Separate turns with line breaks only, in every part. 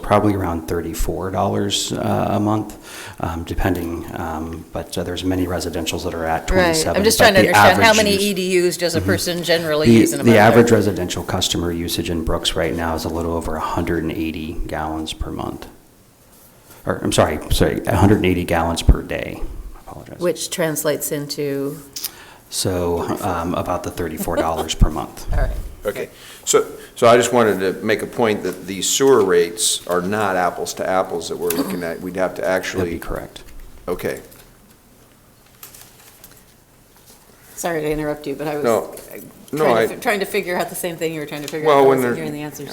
probably around $34 uh, a month, um, depending. Um, But uh, there's many residentials that are at 27.
Right, I'm just
but
trying to
the
understand, how
average
many E
use- Mm-hmm.
EDUs does a person generally
the-
use in a month?
The average residential customer usage in Brooks right now is a little over 180 gallons per month. Or, I'm sorry, sorry, 180 gallons per day. I apologize.
Which translates into,
So um, about the $34 per month.
all right,
Okay, so, so I just wanted to make a point that the sewer rates are not apples to apples that we're looking at. We'd have to
That'd be
actually,
correct.
okay,
sorry to interrupt you, but I
no,
was
no,
trying
I,
to, trying to figure out the same thing you were trying to figure out,
Well,
I
when
wasn't
there-
hearing the answers.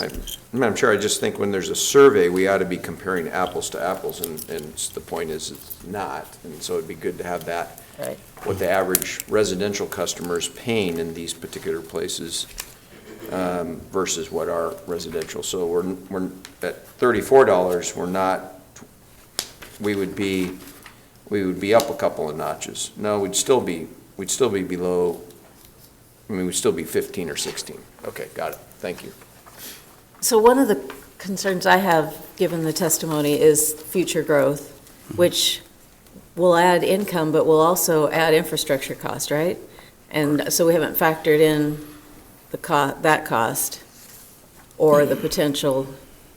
I- Madam Chair, I just think when there's a survey, we ought to be comparing apples to apples, and, and the point is it's not. And so it'd be good to have that,
Right.
what the average residential customer is paying in these particular places um, versus what our residential. So we're, we're, at thirty-four dollars, we're not, we would be, we would be up a couple of notches. No, we'd still be, we'd still be below, I mean, we'd still be fifteen or sixteen. Okay, got it. Thank you.
So one of the concerns I have, given the testimony, is future growth, which will add income, but will also add infrastructure cost, right? And so we haven't factored in the co, that cost or the potential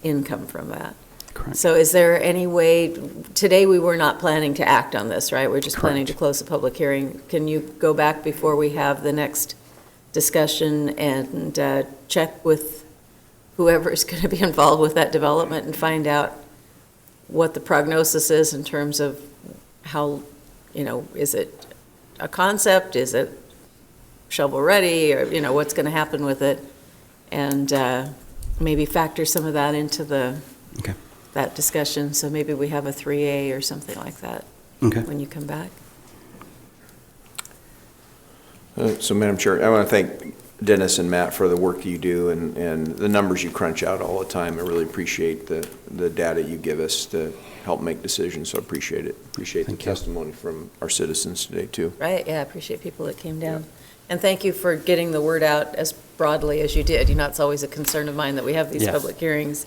income from that.
Correct.
So is there any way, today we were not planning to act on this, right? We're just planning to
Correct.
close the public hearing. Can you go back before we have the next discussion and uh, check with whoever is going to be involved with that development and find out what the prognosis is in terms of how, you know, is it a concept? Is it shovel-ready? Or, you know, what's going to happen with it? And uh, maybe factor some of that into the
Okay.
that discussion, so maybe we have a 3A or something like that
Okay.
when you come back.
Uh, So, Madam Chair, I want to thank Dennis and Matt for the work you do and, and the numbers you crunch out all the time. I really appreciate the, the data you give us to help make decisions, so I appreciate it. Appreciate the
Thank you.
testimony from our citizens today, too.
Right, yeah, I appreciate people that came down. And thank you for getting the word out as broadly as you did. You know, it's always a concern of mine that we have these
Yes.
public hearings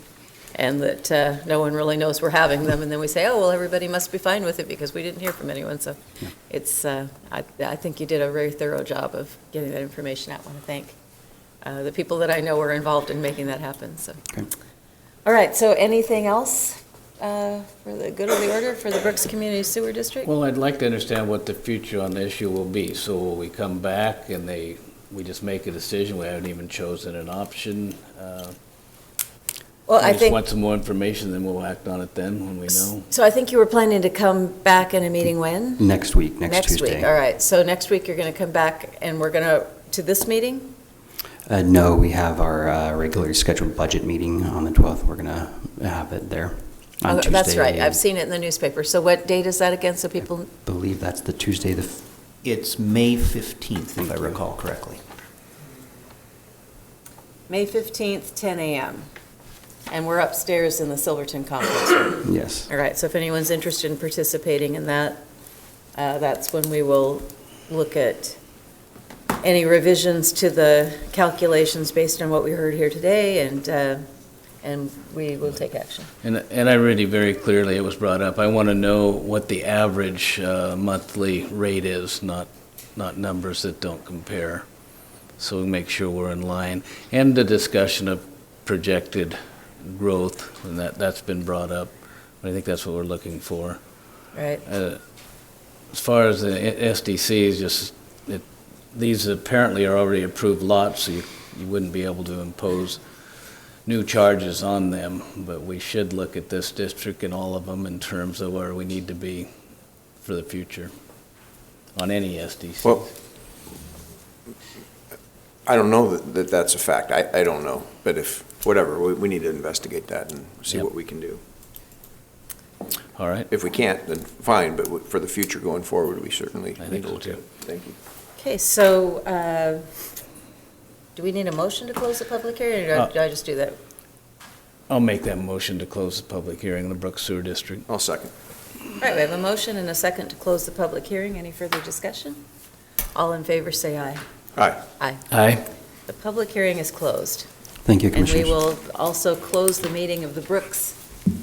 and that uh, no one really knows we're having them, and then we say, oh, well, everybody must be fine with it because we didn't hear from anyone, so it's, uh, I I think you did a very thorough job of getting that information out. I want to thank uh, the people that I know were involved in making that happen, so.
Okay.
All right, so anything else uh, for the good of the order for the Brooks Community Sewer District?
Well, I'd like to understand what the future on the issue will be. So will we come back and they, we just make a decision? We haven't even chosen an option. Uh,
Well,
we
I
just
think.
want some more information, then we'll act on it then when we know.
So I think you were planning to come back in a meeting when?
Next week, next Tuesday.
Next week, all right. So next week, you're going to come back and we're going to, to this meeting?
Uh, no, we have our uh, regularly scheduled budget meeting on the 12th. We're going to have it there on
Oh,
Tuesday.
That's right, I've seen it in the newspaper. So what date is that again, so people,
believe that's the Tuesday, the, f-
It's May 15th, if I
Thank you.
recall correctly.
May 15th, 10 a.m. And we're upstairs in the Silverton Conference Room.
yes.
All right, so if anyone's interested in participating in that, uh, that's when we will look at any revisions to the calculations based on what we heard here today, and, uh, and we will take action.
And, and I really very clearly, it was brought up, I want to know what the average uh, monthly rate is, not, not numbers that don't compare. So we make sure we're in line. And the discussion of projected growth, and that, that's been brought up. I think that's what we're looking for.
Right.
Uh, As far as the SDCs, just, it, these apparently are already approved lots, so you, you wouldn't be able to impose new charges on them, but we should look at this district and all of them in terms of where we need to be for the future on any SDC.
Well- I don't know that, that that's a fact. I, I don't know, but if, whatever, we, we need to investigate that and see
Yep.
what we can do.
All right,
If we can't, then fine, but we- for the future going forward, we certainly
I
need
think
to
so
look at it.
too.
Thank you.
Okay, so uh, do we need a motion to close the public hearing, or do I just do that?
I'll make that motion to close the public hearing in the Brooks Sewer District.
I'll second.
All right, we have a motion and a second to close the public hearing. Any further discussion? All in favor, say aye.
Aye.
Aye.
The public hearing is closed.
Thank you,
And we
Commissioners.
will also close the meeting of the Brooks